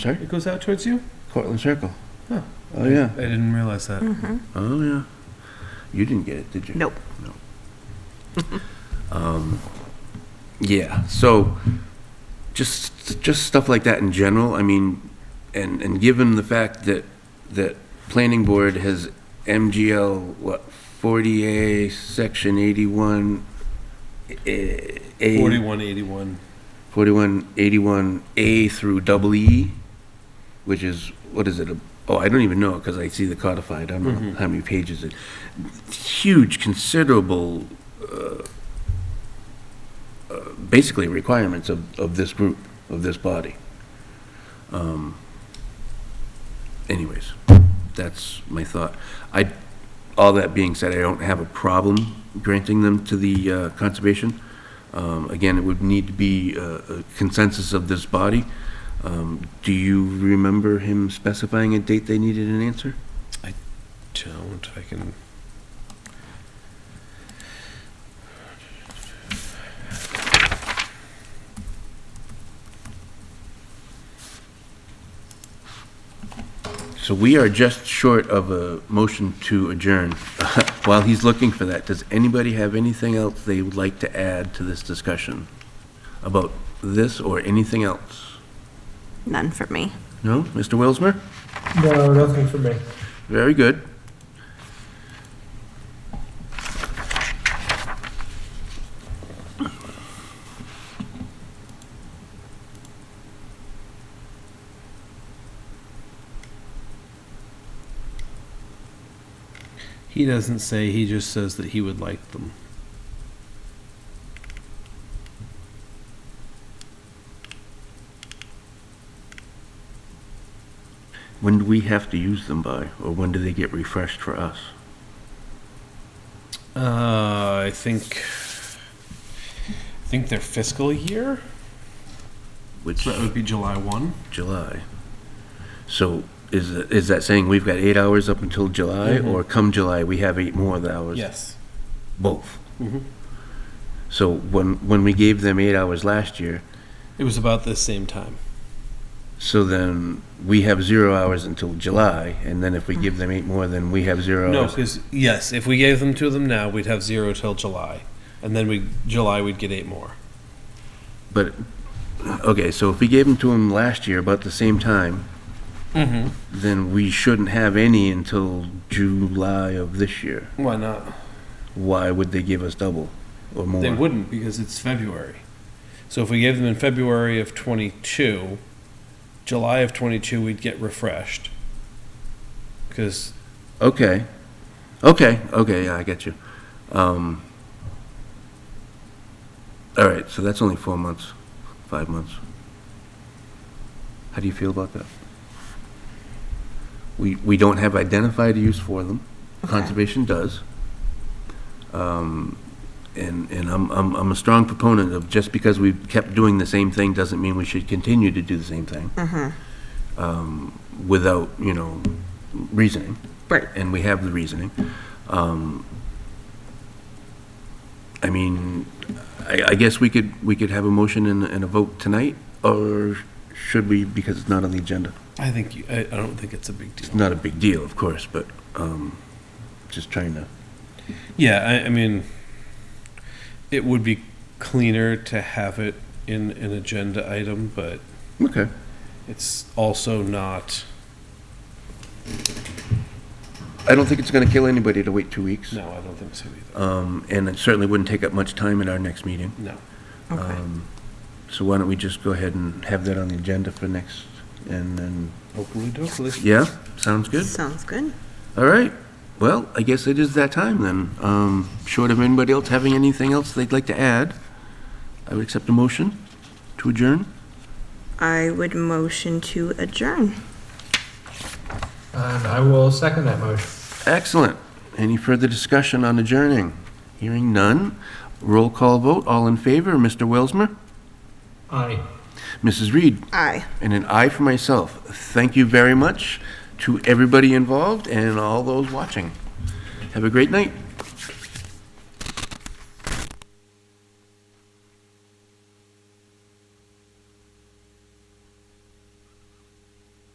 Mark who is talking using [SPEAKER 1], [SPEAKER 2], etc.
[SPEAKER 1] Sorry?
[SPEAKER 2] It goes out towards you?
[SPEAKER 1] Cortland Circle.
[SPEAKER 2] Huh.
[SPEAKER 1] Oh, yeah.
[SPEAKER 2] I didn't realize that.
[SPEAKER 1] Oh, yeah. You didn't get it, did you?
[SPEAKER 3] Nope.
[SPEAKER 1] No. Um, Yeah, so just, just stuff like that in general, I mean, and, and given the fact that, that planning board has MGL, what, 40A, section 81, eh, A.
[SPEAKER 2] 4181.
[SPEAKER 1] 4181A through double E, which is, what is it? a- Oh, I don't even know, because I see the codified, I don't know how many pages it. Huge, considerable, uh, uh, basically requirements of, of this group, of this body. Um, Anyways, that's my thought. I, all that being said, I don't have a problem granting them to the uh, conservation. Um, Again, it would need to be uh, a consensus of this body. Um, Do you remember him specifying a date they needed an answer?
[SPEAKER 2] Don't, I can.
[SPEAKER 1] So we are just short of a motion to adjourn. While he's looking for that, does anybody have anything else they would like to add to this discussion about this or anything else?
[SPEAKER 3] None for me.
[SPEAKER 1] No? Mr. Wilsmer?
[SPEAKER 4] No, nothing for me.
[SPEAKER 1] Very good.
[SPEAKER 2] He doesn't say, he just says that he would like them.
[SPEAKER 1] When do we have to use them by, or when do they get refreshed for us?
[SPEAKER 2] Uh, I think. I think their fiscal year?
[SPEAKER 1] Which,
[SPEAKER 2] So that would be July 1.
[SPEAKER 1] July. So is, it- is that saying we've got eight hours up until July,
[SPEAKER 2] Mhm.
[SPEAKER 1] or come July, we have eight more hours?
[SPEAKER 2] Yes.
[SPEAKER 1] Both.
[SPEAKER 2] Mhm.
[SPEAKER 1] So when, when we gave them eight hours last year,
[SPEAKER 2] It was about the same time.
[SPEAKER 1] so then we have zero hours until July, and then if we give them eight more, then we have zero
[SPEAKER 2] No,
[SPEAKER 1] hours.
[SPEAKER 2] because, yes, if we gave them to them now, we'd have zero till July. And then we, July, we'd get eight more.
[SPEAKER 1] But, okay, so if we gave them to them last year about the same time,
[SPEAKER 2] Mm-hmm.
[SPEAKER 1] then we shouldn't have any until July of this year.
[SPEAKER 2] Why not?
[SPEAKER 1] Why would they give us double or more?
[SPEAKER 2] They wouldn't because it's February. So if we gave them in February of 22, July of 22, we'd get refreshed. Because
[SPEAKER 1] Okay. Okay, okay, yeah, I get you. Um, all right, so that's only four months, five months. How do you feel about that? We, we don't have identified use for them. Conservation does. Um, and, and I'm, I'm, I'm a strong proponent of just because we've kept doing the same thing doesn't mean we should continue to do the same thing. Um, without, you know, reasoning
[SPEAKER 3] Right.
[SPEAKER 1] and we have the reasoning. Um, I mean, I, I guess we could, we could have a motion and, and a vote tonight, or should we, because it's not on the agenda?
[SPEAKER 2] I think, you, I, I don't think it's a big
[SPEAKER 1] It's
[SPEAKER 2] deal.
[SPEAKER 1] not a big deal, of course, but, um, just trying to,
[SPEAKER 2] Yeah, I, I mean, it would be cleaner to have it in an agenda item, but
[SPEAKER 1] okay.
[SPEAKER 2] it's also not.
[SPEAKER 1] I don't think it's gonna kill anybody to wait two weeks.
[SPEAKER 2] No, I don't think so either.
[SPEAKER 1] Um, and it certainly wouldn't take up much time at our next meeting.
[SPEAKER 2] No.
[SPEAKER 3] Okay.
[SPEAKER 1] Um, So why don't we just go ahead and have that on the agenda for next, and then,
[SPEAKER 2] Hopefully, hopefully.
[SPEAKER 1] yeah, sounds good?
[SPEAKER 3] Sounds good.
[SPEAKER 1] All right. Well, I guess it is that time then. Um, Short of anybody else having anything else they'd like to add, I would accept a motion to adjourn.
[SPEAKER 3] I would motion to adjourn.
[SPEAKER 4] And I will second that motion.
[SPEAKER 1] Excellent. Any further discussion on adjourning? Hearing none. Roll call vote. All in favor, Mr. Welsmer?
[SPEAKER 4] Aye.
[SPEAKER 1] Mrs. Reed?
[SPEAKER 3] Aye.
[SPEAKER 1] And an aye for myself. Thank you very much to everybody involved and all those watching. Have a great night.